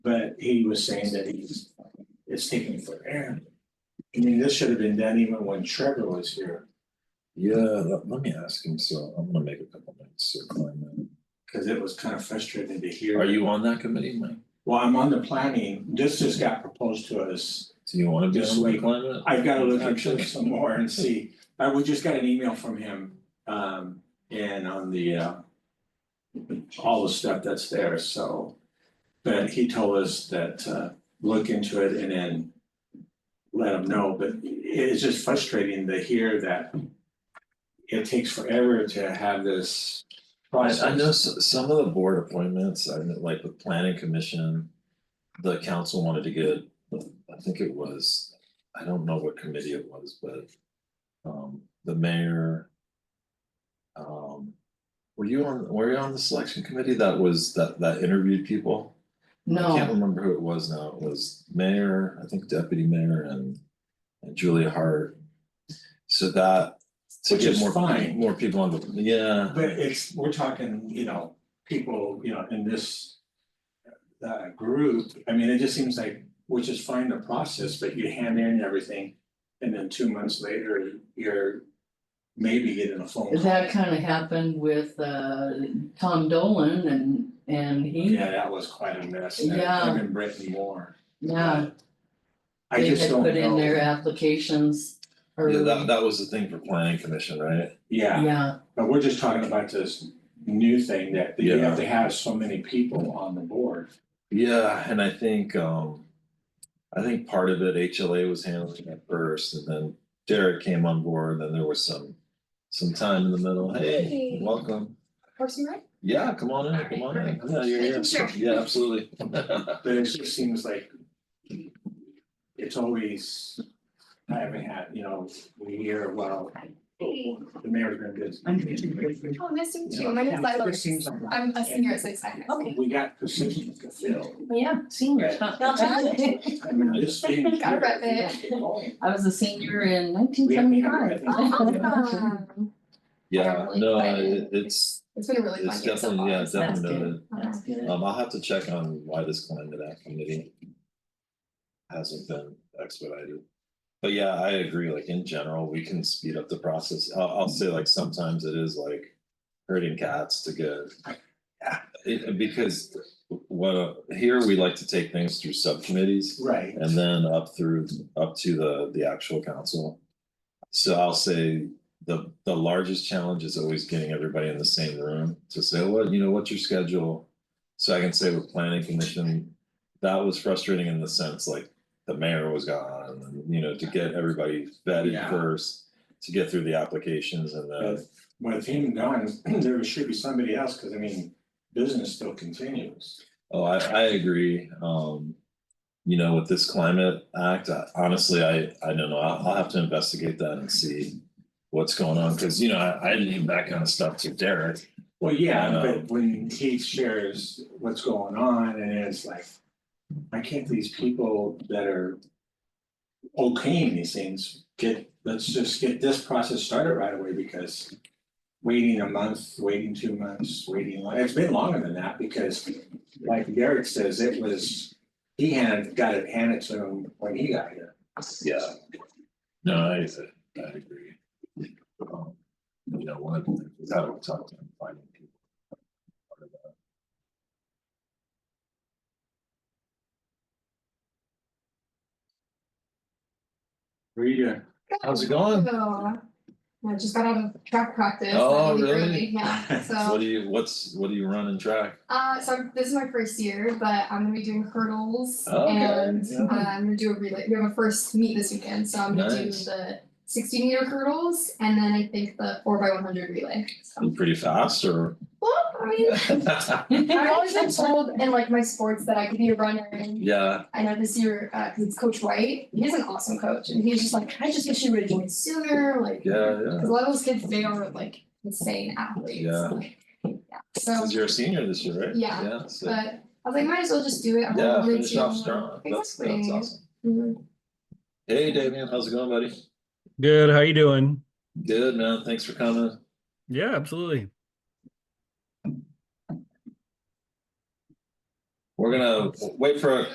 But he was saying that he's, it's taking forever. I mean, this should have been done even when Trevor was here, Yeah, let, let me ask him, so I'm gonna make a couple notes. so find cause it was kind of frustrating to that. hear. Are you on that committee, Mike? Well, I'm on the planning, this just got proposed to us, Do you wanna be Yes, on the we- climate? I've gotta look into it some more and see. I, we just got an email from him, um, and on the, uh. All the stuff that's there, so, but he told us that, uh, look into it and then. Let him know, but it's just frustrating to hear that. It takes forever to have this I, process. I know s- some of the board appointments, I know like the planning commission, the council wanted to get, I think it was, I don't know what committee it was, but um, the mayor. Um, were you on, were you on the selection committee that was, that, that interviewed people? Oh. I can't No, remember who it was now, it was mayor, I think deputy mayor and and Julia Hart. So that, to Which get is more, fine. more people on the, yeah. But it's, we're talking, you know, people, you know, in this. Uh, group, I mean, it just seems like, which is fine the process, but you hand in everything. And then two months later, you're maybe getting a phone call. that kind of happened with uh Tom Dolan and and he, Yeah, that was quite a mess. That- Yeah. I've been breaking more. yeah, I they just had don't put in their uh, know. applications Yeah, early, that that was the thing for planning commission, right? Yeah, yeah, but we're just talking about this new thing that you Yeah. have to have so many people on the board. Yeah, and I think um. I think part of it HLA was handling at first and then Derek came on board, then there was some. Some time in the middle, hey, Hey. welcome, Horse and Ride? yeah, come on in, come on in, Alright, yeah, you're perfect. here, Sure. yeah, absolutely. But it just seems like it's always, I haven't had, you know, we hear, well, Hey. the mayor's been busy. Oh, nice to meet Yeah. you. My name's It Lila. just seems like I'm a senior at Six Sigma. We got positions to fill. yeah, senior. I mean, this thing. Gotta rep it. I was a senior in We nineteen have- we seventy have- five. Awesome. Yeah, really no, excited. it- it's It's been a really it's fun year so definitely, far. yeah, so that's definitely, noted. That's good. um, I'll have to check on why this climbed to that committee. Hasn't been expedited. But yeah, I agree, like in general, we can speed up the process. I'll, I'll say like sometimes it is like herding cats to get. It, because what, uh, here we like to take things through subcommittees Right, and then up through, up to the, the actual council. So I'll say the, the largest challenge is always getting everybody in the same room to say, well, you know, what's your schedule? So I can say with planning commission, that was frustrating in the sense like the mayor was gone, and you know, to get everybody vetted Yeah. first, to get through the applications and then, with him gone, there should be somebody else, because I mean, business still continues. oh, I, I agree. Um, you know, with this climate act, I- honestly, I, I don't know. I'll, I'll have to investigate that and see what's going on, because you know, I, I leave that kind of stuff to Derek. um, Well, yeah, I know. but when he shares what's going on and it's like, why can't these people that are okaying these things get, let's just get this process started right away because waiting a month, waiting two months, waiting, li- it's been longer than that because like Derek says, it was, he had, got it handed to him when he got here. Yeah. No, I, I agree. Um, You know, one of the, things that we're talking, finding people. Part of that. Rita, How's it going? So, I just got out of track practice. Oh, I'm really? early, Yeah, What so, do you, what's, what do you run in track? uh, so I'm- this is my first year, but I'm gonna be doing hurdles Oh, Okay, and yeah. uh, I'm gonna do a relay. We have a first meet this weekend, so I'm gonna do Nice. the sixty meter hurdles and then I think the four by one hundred relay. So, You pretty fast or? well, I mean, I've always been told in like my sports that I could be a runner and Yeah, I know this year, uh, cause it's Coach White, he's an awesome coach and he's just like, I just wish you would have joined sooner, like. yeah, yeah. Cause a lot of those kids, they are like insane athletes, Yeah. like, yeah, so, Cause you're a senior this year, right? Yeah, Yeah, so, but I was like, might as well just do it, I'm yeah, not really finish off strong. That's, that's Exactly. awesome. Mhm. Hey, Damian, how's it going, buddy? Good. How you doing? Good, man. Thanks for coming. Yeah, absolutely. We're gonna wait for a